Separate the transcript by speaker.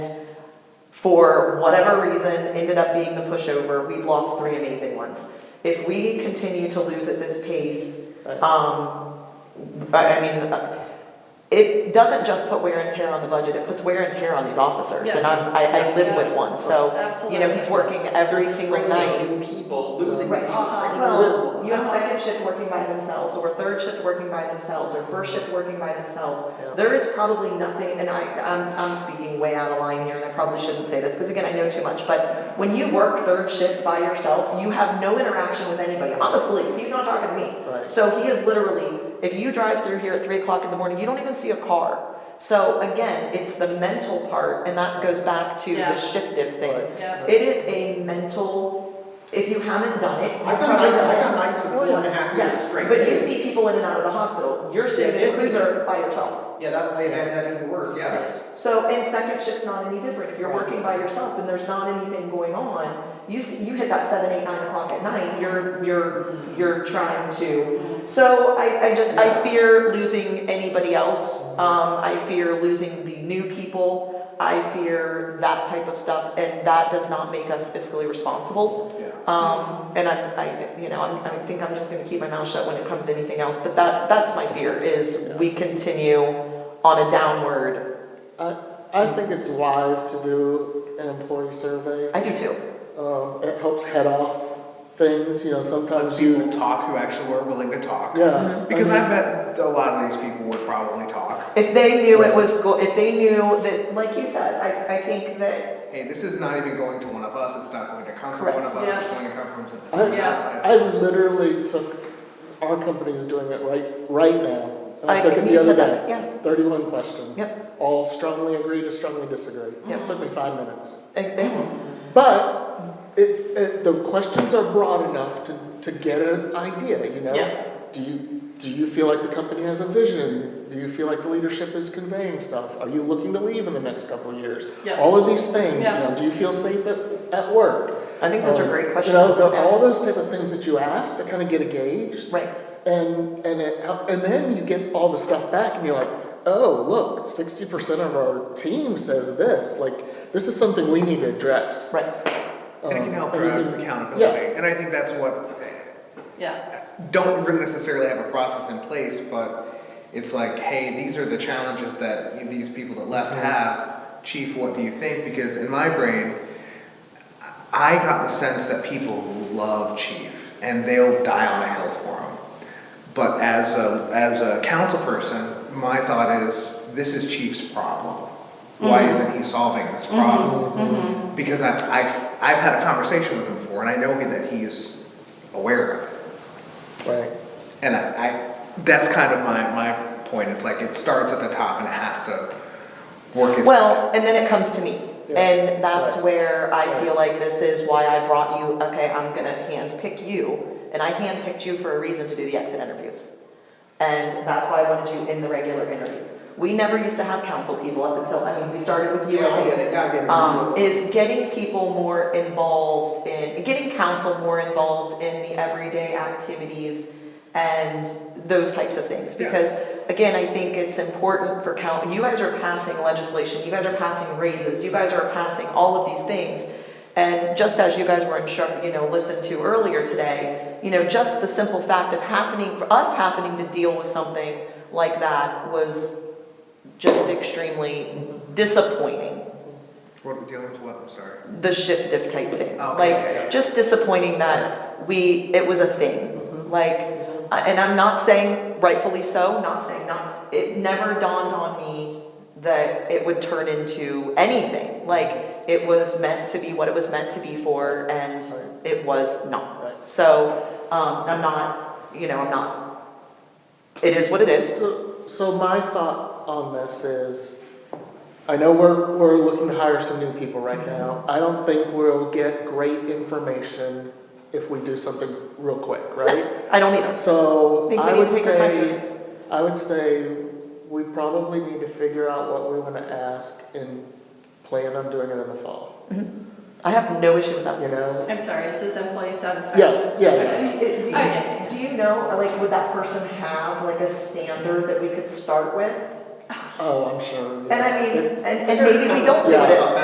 Speaker 1: for whatever reason, ended up being the pushover, we've lost three amazing ones. If we continue to lose at this pace,
Speaker 2: Right.
Speaker 1: um, I I mean, uh, it doesn't just put wear and tear on the budget, it puts wear and tear on these officers. And I'm, I, I live with one, so, you know, he's working every single night.
Speaker 3: Training people, losing
Speaker 1: Right.
Speaker 3: people,
Speaker 4: Uh-huh.
Speaker 3: training
Speaker 1: Well,
Speaker 3: people.
Speaker 1: you have second shift working by themselves, or third shift working by themselves, or first shift working by themselves.
Speaker 2: Yeah.
Speaker 1: There is probably nothing, and I, I'm, I'm speaking way out of line here, and I probably shouldn't say this, because again, I know too much, but when you work third shift by yourself, you have no interaction with anybody. I'm asleep, he's not talking to me.
Speaker 2: Right.
Speaker 1: So he is literally, if you drive through here at three o'clock in the morning, you don't even see a car. So again, it's the mental part, and that goes back to
Speaker 4: Yeah.
Speaker 1: the shiftive thing.
Speaker 2: Right.
Speaker 4: Yeah.
Speaker 1: It is a mental, if you haven't done it, you
Speaker 3: I've got
Speaker 1: probably
Speaker 3: nights, I've got
Speaker 1: don't.
Speaker 3: nights for four and a half years
Speaker 1: Yeah,
Speaker 3: straight.
Speaker 1: but you
Speaker 3: It's-
Speaker 1: see people in and out of the hospital, you're sitting
Speaker 3: Yeah,
Speaker 1: in
Speaker 3: it's
Speaker 1: the
Speaker 3: in there.
Speaker 1: freezer by yourself.
Speaker 3: Yeah, that's why it had to have even worse, yes.
Speaker 1: So, and second shift's not any different, if you're
Speaker 2: Right.
Speaker 1: working by yourself and there's not anything going on, you, s- you hit that seven, eight, nine o'clock at night, you're, you're, you're trying to. So I, I just, I fear losing anybody else, um, I fear losing the new people, I fear that type of stuff, and that does not make us fiscally responsible.
Speaker 3: Yeah.
Speaker 1: Um, and I, I, you know, I'm, I think I'm just gonna keep my mouth shut when it comes to anything else, but that, that's my fear, is we continue on a downward.
Speaker 2: I, I think it's wise to do an employee survey.
Speaker 1: I do too.
Speaker 2: Um, it helps head off things, you know,
Speaker 5: Let's
Speaker 2: sometimes
Speaker 5: people
Speaker 2: you,
Speaker 5: talk who actually were willing to talk.
Speaker 1: Mm-hmm.
Speaker 2: yeah.
Speaker 5: Because
Speaker 2: I
Speaker 5: I
Speaker 2: mean,
Speaker 5: bet a lot of these people would probably talk.
Speaker 1: If they knew it was, go- if they knew that, like you said, I, I think that,
Speaker 5: Hey, this is not even going to one of us, it's not going to come from one of
Speaker 1: Correct.
Speaker 5: us, it's
Speaker 4: Yeah.
Speaker 5: going to come from
Speaker 2: I-
Speaker 5: someone else.
Speaker 2: I literally took, our company is doing it right, right now. And
Speaker 1: I,
Speaker 2: I took it
Speaker 1: you
Speaker 2: the other
Speaker 1: said that,
Speaker 2: day,
Speaker 1: yeah,
Speaker 2: thirty-one questions.
Speaker 1: Yep.
Speaker 2: All strongly agree to strongly disagree.
Speaker 1: Yep.
Speaker 2: It Took me five minutes.
Speaker 1: And- and-
Speaker 2: But it's, it, the questions are broad enough to, to get an idea, you know?
Speaker 1: Yeah.
Speaker 2: Do you, do you feel like the company has a vision? Do you feel like the leadership is conveying stuff? Are you looking to leave in the next couple of years?
Speaker 4: Yeah.
Speaker 2: All of these things, you
Speaker 4: Yeah.
Speaker 2: know, do you feel safe at, at work?
Speaker 1: I think those are
Speaker 2: Um,
Speaker 1: great
Speaker 2: You
Speaker 1: questions.
Speaker 2: know, the-
Speaker 1: yeah.
Speaker 2: all those type of things that you ask to kind of get a gauge.
Speaker 1: Right,
Speaker 2: And, and it, hel- and then you get all the stuff back and you're like, oh, look, sixty percent of our team says this, like, this is something we need to address.
Speaker 1: right,
Speaker 5: And it can help
Speaker 2: Um,
Speaker 5: drive
Speaker 2: and you can-
Speaker 5: accountability, and I think that's what
Speaker 4: Yeah,
Speaker 5: don't even necessarily have a process in place, but it's like, hey, these are the challenges that these people that left have. Chief, what do you think? Because in my brain, I got the sense that people love Chief and they'll die on a hill for him. But as a, as a council person, my thought is, this is Chief's problem. Why isn't he solving this problem? Because I've, I've, I've had a conversation with him before and I know that he is aware of it.
Speaker 2: Right.
Speaker 5: And I, I that's kind of my, my point. It's like it starts at the top and it has to work its
Speaker 1: well, and then it comes to me,
Speaker 2: Yeah.
Speaker 1: and that's
Speaker 2: Right.
Speaker 1: where I feel like this is why I brought you, okay, I'm gonna handpick you, and I handpicked you for a reason to do the exit interviews. And that's why I wanted you in the regular interviews. We never used to have council people up until, I mean, we started with you.
Speaker 3: Yeah, I
Speaker 1: and-
Speaker 3: get it, gotta get it.
Speaker 1: um, is getting people more involved in, getting council more involved in the everyday activities and those types of things.
Speaker 5: Yeah.
Speaker 1: Because, again, I think it's important for count, you guys are passing legislation, you guys are passing raises, you guys are passing all of these things. And just as you guys were instructed, you know, listened to earlier today, you know, just the simple fact of happening, for us happening to deal with something like that was just extremely disappointing
Speaker 5: what are we dealing with what? I'm sorry.
Speaker 1: the shift diff type thing.
Speaker 5: Oh, okay.
Speaker 1: Like, just disappointing that we, it was a thing.
Speaker 5: Mm-hmm.
Speaker 1: Like, I- and I'm not saying rightfully so, not saying not, it never dawned on me that it would turn into anything. Like, it was meant to be what it was meant to be for, and it was
Speaker 2: Right.
Speaker 1: not. So, um, I'm not, you know, I'm not, it is what it is.
Speaker 2: So, so my thought on this is, I know we're, we're looking to hire some new people right
Speaker 1: Mm-hmm.
Speaker 2: now. I don't think we'll get great information if we do something real quick, right?
Speaker 1: I don't either.
Speaker 2: So
Speaker 1: Think we
Speaker 2: I
Speaker 1: need
Speaker 2: would
Speaker 1: to take our time
Speaker 2: say, I would say we probably need to figure out what we want to ask and plan on doing it in the fall,
Speaker 1: I have no issue with that.
Speaker 2: you know?
Speaker 4: I'm sorry, is this employee satisfaction?
Speaker 2: Yes, yeah, yeah.
Speaker 1: Do you- do
Speaker 4: Okay.
Speaker 1: you, do you know, like, would that person have like a standard that we could start with?
Speaker 2: Oh, I'm sure. yeah.
Speaker 1: And I mean,
Speaker 2: It's-
Speaker 1: and, and maybe we don't do
Speaker 2: Yeah.
Speaker 1: it,